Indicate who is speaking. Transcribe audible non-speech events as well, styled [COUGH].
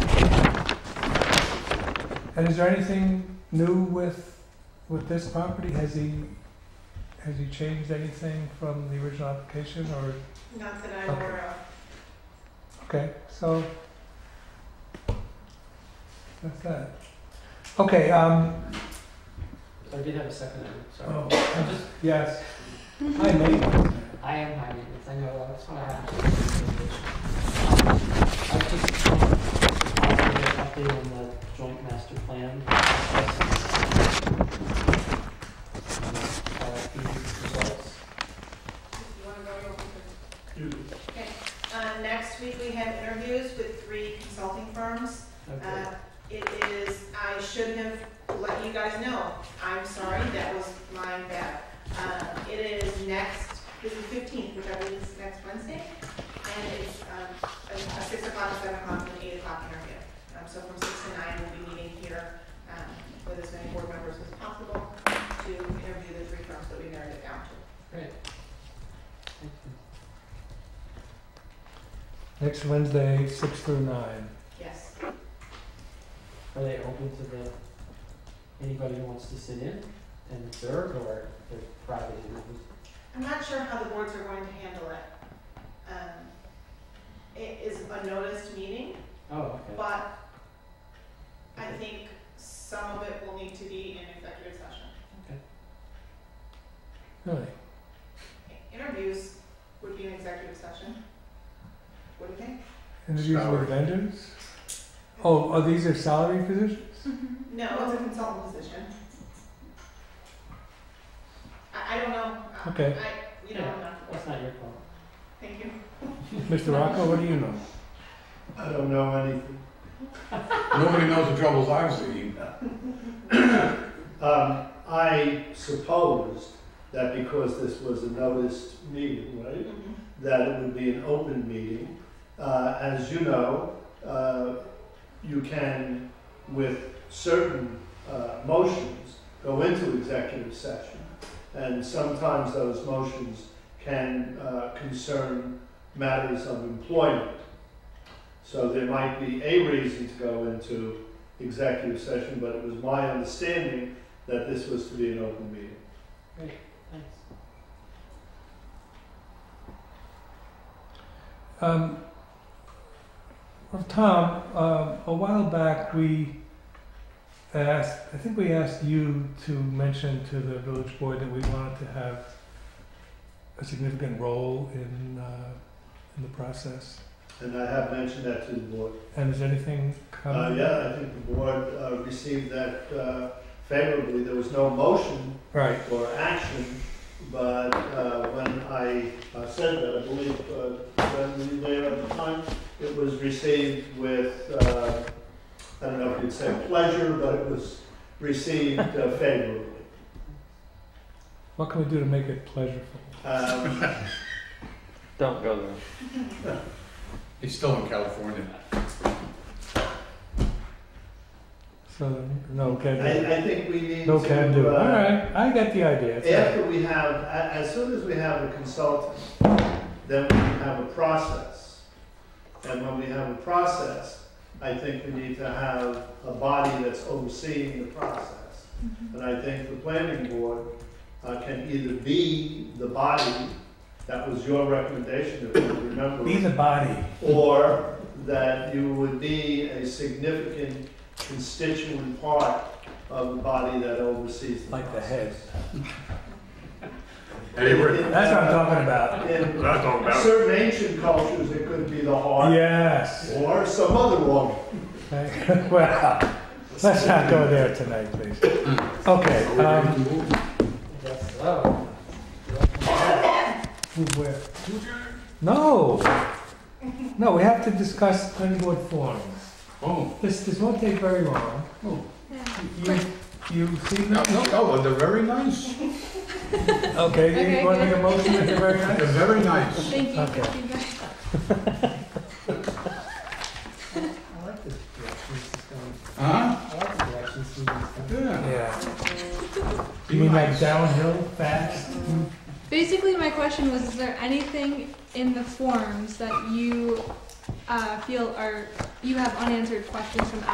Speaker 1: And is there anything new with, with this property? Has he, has he changed anything from the original application or,
Speaker 2: Not that I'm aware of.
Speaker 1: okay, so. That's that. Okay, um,
Speaker 3: I did have a second item,
Speaker 1: oh,
Speaker 3: sorry. I'm just,
Speaker 1: yes. Hi, Nate.
Speaker 3: I am high maintenance, I know, that's what I have. to do in this presentation. Um, I just, um, I'll give you an update on the joint master plan. RFP results.
Speaker 2: You wanna go over to- Okay, uh, next week we have interviews with three consulting firms.
Speaker 3: Okay,
Speaker 2: Uh, it is, I should have let you guys know, I'm sorry, that was my bad. Uh, it is next, this is fifteenth, which I believe is next Wednesday, and it's, um, a a six o'clock, seven o'clock, and eight o'clock interview. Um, so from six to nine, we'll be meeting here, um, with as many board members as possible to interview the three firms that we narrowed it down to.
Speaker 3: great. Thank you.
Speaker 1: Next Wednesday, six through nine.
Speaker 2: Yes,
Speaker 3: Are they open to the, anybody who wants to sit in and observe, or they're private interviews?
Speaker 2: I'm not sure how the boards are going to handle it. Um, it is a noticed meeting,
Speaker 3: Oh, okay.
Speaker 2: but I think some of it will need to be in executive session.
Speaker 1: Really?
Speaker 2: Interviews would be in executive session. What do you think?
Speaker 1: Interviews
Speaker 4: Salary.
Speaker 1: with vendors? Oh, oh, these are salary [LAUGHS] positions?
Speaker 2: No, it's a consultant position. I, I don't know. I-
Speaker 1: Okay.
Speaker 2: I, you know, I'm not,
Speaker 3: That's not your fault.
Speaker 2: thank you.
Speaker 1: Mr. Rocco, what do you know?
Speaker 4: I don't know anything.
Speaker 5: Nobody knows the troubles I've seen.
Speaker 4: Um, I supposed that because this was a noticed meeting, right,
Speaker 2: Mhm.
Speaker 4: that it would be an open meeting. Uh, as you know, uh, you can, with certain, uh, motions, go into executive session. And sometimes those motions can, uh, concern matters of employment. So there might be a reason to go into executive session, but it was my understanding that this was to be an open meeting.
Speaker 3: Thanks.
Speaker 1: Um, well, Tom, um, a while back, we asked, I think we asked you to mention to the village board that we wanted to have a significant role in, uh, in the process.
Speaker 4: And I have mentioned that to the board.
Speaker 1: And is anything
Speaker 4: Uh,
Speaker 1: coming?
Speaker 4: yeah, I think the board, uh, received that, uh, favorably. There was no motion
Speaker 1: Right,
Speaker 4: or action, but, uh, when I uh, said that, I believe, uh, when we there at the time, it was received with, uh, I don't know if you'd say pleasure, but it was received uh, favorably.
Speaker 1: what can we do to make it pleasurable?
Speaker 4: Um,
Speaker 1: [LAUGHS]
Speaker 6: Don't go there.
Speaker 5: He's still in California.
Speaker 1: So, no, can do.
Speaker 4: I, I think we need
Speaker 1: No,
Speaker 4: to.
Speaker 1: can do.
Speaker 4: uh,
Speaker 1: All right, I get the idea. It's all right.
Speaker 4: After we have, a- as soon as we have a consultant, then we have a process. And when we have a process, I think we need to have a body that's overseeing the process.
Speaker 1: Mm-hmm.
Speaker 4: And I think the planning board uh, can either be the body, that was your recommendation, if you remember
Speaker 1: Be the body.
Speaker 4: or that you would be a significant constituent part of the body that oversees the
Speaker 1: Like the head.
Speaker 4: process.
Speaker 5: Anyway,
Speaker 1: That's what I'm talking about.
Speaker 4: In
Speaker 5: I'm talking
Speaker 4: certain ancient cultures, it could be the heart
Speaker 1: Yes.
Speaker 4: or some other organ.
Speaker 1: [LAUGHS] well, let's not go there tonight, please. Okay. Um,
Speaker 3: I guess so.
Speaker 1: move where? No. No, we have to discuss planning board forums.
Speaker 5: Oh,
Speaker 1: This this won't take very long.
Speaker 5: oh,
Speaker 1: You you see
Speaker 5: no,
Speaker 1: them?
Speaker 5: no, no, but they're very nice.
Speaker 1: Okay. You want to make a motion at the very
Speaker 5: They're
Speaker 1: end?
Speaker 5: very nice.
Speaker 7: Thank you.
Speaker 1: Okay.
Speaker 3: I like this direction this is going. I
Speaker 5: Huh?
Speaker 3: like the direction this is going.
Speaker 5: Yeah.
Speaker 1: Yeah.
Speaker 5: Be
Speaker 1: You mean like
Speaker 5: nice.
Speaker 1: downhill fast?
Speaker 7: Basically, my question was: Is there anything in the forms that you uh, feel are you have unanswered questions from